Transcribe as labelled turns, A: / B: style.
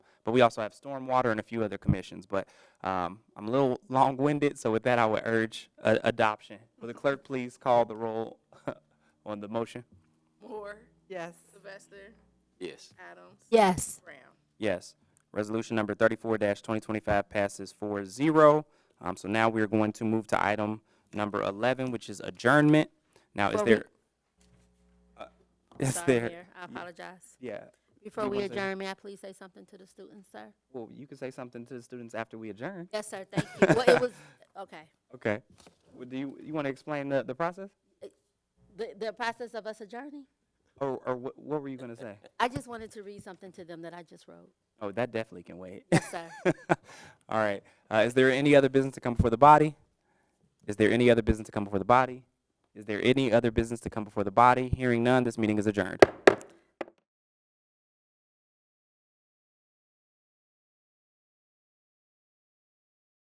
A: But we also have stormwater and a few other commissions. But um, I'm a little long-winded, so with that, I would urge a- adoption. Will the clerk please call the roll on the motion?
B: Moore,
C: Yes.
B: Sylvester,
D: Yes.
B: Adams,
E: Yes.
B: Brown.
A: Yes. Resolution number thirty-four twenty twenty-five passes 4-0. Um, so now we're going to move to item number eleven, which is adjournment. Now, is
E: Before we-
A: there? Uh, Is
E: Sorry,
A: there?
E: Mayor, I apologize.
A: Yeah.
E: Before
A: You
E: we
A: want to-
E: adjourn, may I please say something to the students, sir?
A: Well, you can say something to the students after we adjourn.
E: Yes, sir, thank you. Well, it was, okay.
A: Okay. Well, do you, you want to explain the, the process?
E: The, the process of us adjourning,
A: Or, or what, what were you going to say?
E: I just wanted to read something to them that I just wrote.
A: Oh, that definitely can wait.
E: Yes, sir.
A: All right. Uh, is there any other business to come before the body? Is there any other business to come before the body? Is there any other business to come before the body? Hearing none, this meeting is adjourned.